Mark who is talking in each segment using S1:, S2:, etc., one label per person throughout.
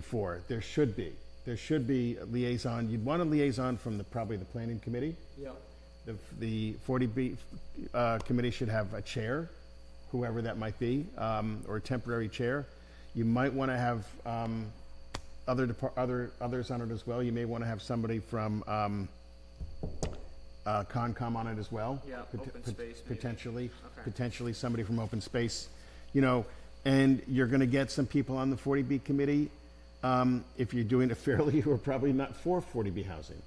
S1: before. There should be. There should be a liaison. You'd want a liaison from the, probably the planning committee.
S2: Yep.
S1: The, the 40B uh, committee should have a chair, whoever that might be, um, or a temporary chair. You might want to have um, other, depar- other, others on it as well. You may want to have somebody from um, uh, Concom on it as well.
S2: Yeah,
S1: pot-
S2: open
S1: pot-
S2: space maybe.
S1: Potentially,
S2: Okay.
S1: potentially somebody from open space, you know, and you're going to get some people on the 40B committee, um, if you're doing it fairly, who are probably not for 40B housing.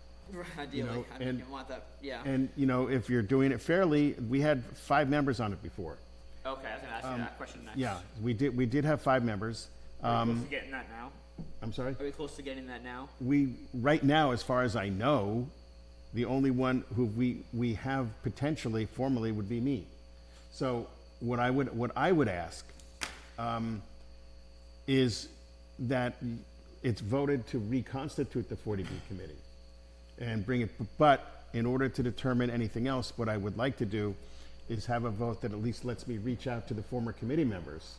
S2: Ideally,
S1: know,
S2: I mean,
S1: and-
S2: you want that, yeah.
S1: And, you know, if you're doing it fairly, we had five members on it before.
S2: Okay, I was gonna ask you that question next.
S1: um, Yeah, we did, we did have five members.
S2: Are we
S1: Um,
S2: close to getting that now?
S1: I'm sorry?
S2: Are we close to getting that now?
S1: We, right now, as far as I know, the only one who we, we have potentially formally would be me. So what I would, what I would ask, um, is that it's voted to reconstitute the 40B committee and bring it, but in order to determine anything else, what I would like to do is have a vote that at least lets me reach out to the former committee members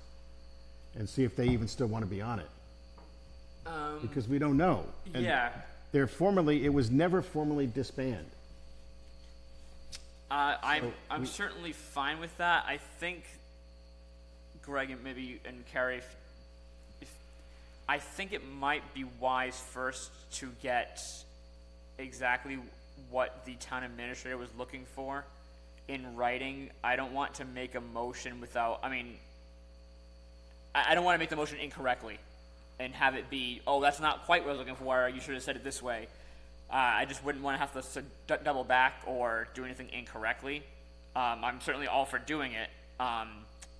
S1: and see if they even still want to be on it.
S2: Um,
S1: Because we don't know. And
S2: yeah,
S1: They're formally, it was never formally disbanded.
S2: uh, I'm, I'm certainly fine with that. I think Greg and maybe you- and Carrie, if, if, I think it might be wise first to get exactly what the town administrator was looking for in writing. I don't want to make a motion without, I mean, I, I don't want to make the motion incorrectly and have it be, oh, that's not quite what I was looking for, or you should have said it this way. Uh, I just wouldn't want to have to s- d- double back or do anything incorrectly. Um, I'm certainly all for doing it um,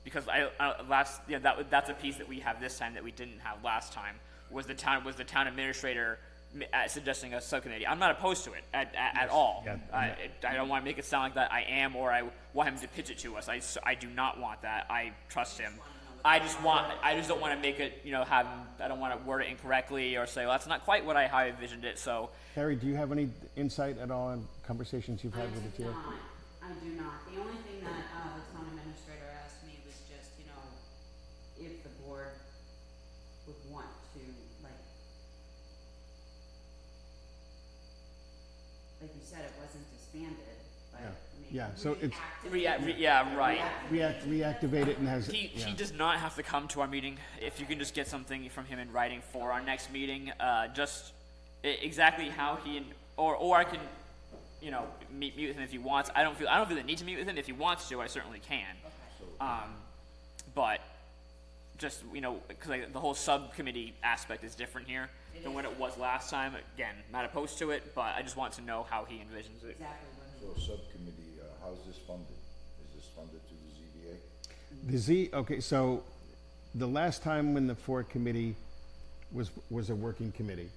S2: because I, I last yeah that was- that's a piece that we have this time that we didn't have last time was the town was the town administrator m- uh, suggesting a subcommittee. I'm not opposed to it at, at, at all.
S1: yeah,
S2: I- I, I don't want to make it sound like that I am or I want him to pitch it to us. I, s- I do not want that. I trust him. I just want, I just don't want to make it, you know, have, I don't want to word it incorrectly or say, well, that's not quite what I, how I envisioned it, so.
S1: Harry, do you have any insight at all on conversations you've
S3: I
S1: had with the
S3: do
S1: chair?
S3: not, I do not. The only thing that, uh, the town administrator asked me was just, you know, if the board would want to, like, like you said, it wasn't disbanded,
S1: Yeah.
S3: but maybe
S1: Yeah, so it's-
S3: reactivate
S2: Rea- re- yeah, right.
S1: React, reactivate it and has,
S2: He,
S1: yeah.
S2: he does not have to come to our meeting. If you can just get something from him in writing for our next meeting, uh, just e- exactly how he and, or, or I can, you know, meet, meet with him if he wants. I don't feel, I don't feel the need to meet with him. If he wants to, I certainly can. Um, but just, you know, cause like the whole subcommittee aspect is different here than what it was last time. Again, not opposed to it, but I just want to know how he envisions it.
S3: Exactly what he
S4: So subcommittee, uh, how's this funded? Is this funded through the ZBA?
S1: The Z, okay, so the last time when the Ford committee was, was a working committee,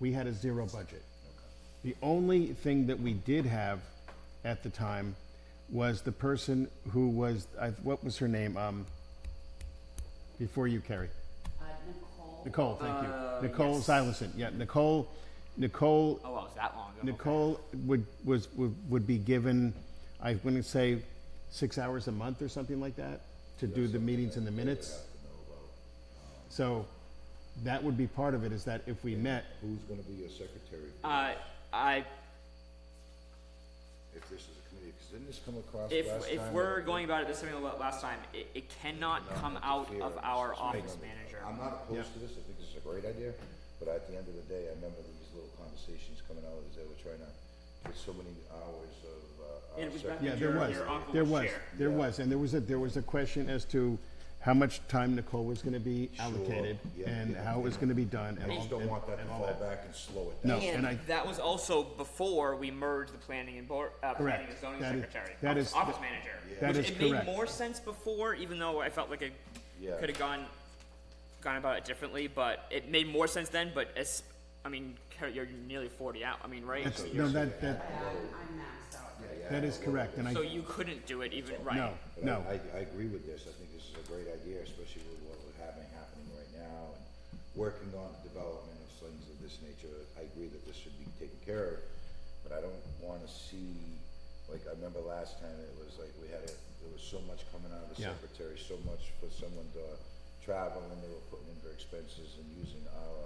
S1: we had a zero budget. The only thing that we did have at the time was the person who was, I, what was her name, um, before you, Carrie?
S3: Uh, Nicole,
S1: Nicole, thank you. Nicole Silason, yeah, Nicole, Nicole
S2: Oh, well, it was that long ago.
S1: Nicole would, was, would would be given, I wouldn't say, six hours a month or something like that to do the meetings and the minutes. So that would be part of it, is that if we met,
S4: Who's gonna be your secretary
S2: Uh, I,
S4: if this is a committee? Cause didn't this come across last
S2: If,
S4: time?
S2: if we're going about it the same way la- last time, it, it cannot come out of our office manager.
S4: I'm not opposed to this, I think this is a great idea, but at the end of the day, I remember these little conversations coming out as they were trying to get so many hours of, uh.
S2: And
S4: our
S2: it was back
S4: secretary.
S1: yeah, there
S2: Your-
S1: was,
S2: your uncle
S1: there
S2: was
S1: was,
S2: chair.
S1: there was, and there was a, there was a question as to how much time Nicole was gonna be allocated
S4: yeah,
S1: and
S4: yeah,
S1: how it was gonna be done and
S4: I
S1: all,
S4: just don't
S1: and-
S4: want that to
S1: and all
S4: fall
S1: that.
S4: back and slow it
S1: No,
S4: down.
S1: and I,
S2: And that was also before we merged the planning and board, uh, planning
S1: Correct.
S2: and zoning
S1: That is-
S2: secretary,
S1: that
S2: office,
S1: is-
S2: office manager.
S1: That is
S2: Which It made
S1: correct.
S2: more sense before, even though I felt like it
S4: Yeah.
S2: could've gone, gone about it differently, but it made more sense then, but as, I mean, Ker- you're nearly forty out, I mean, right?
S1: that's,
S2: So you're-
S1: no, that, that,
S3: I'm, uh, I'm maxed out.
S1: that is correct, and I,
S2: So you couldn't do it even, right?
S1: no,
S4: But
S1: no.
S4: I, I, I agree with this, I think this is a great idea, especially with what we're having happening right now, and working on the development of things of this nature, I agree that this should be taken care of, but I don't wanna see, like, I remember last time, it was like, we had, a there was so much coming out of the
S1: Yeah.
S4: secretary, so much for someone to travel, and they were putting in their expenses and using our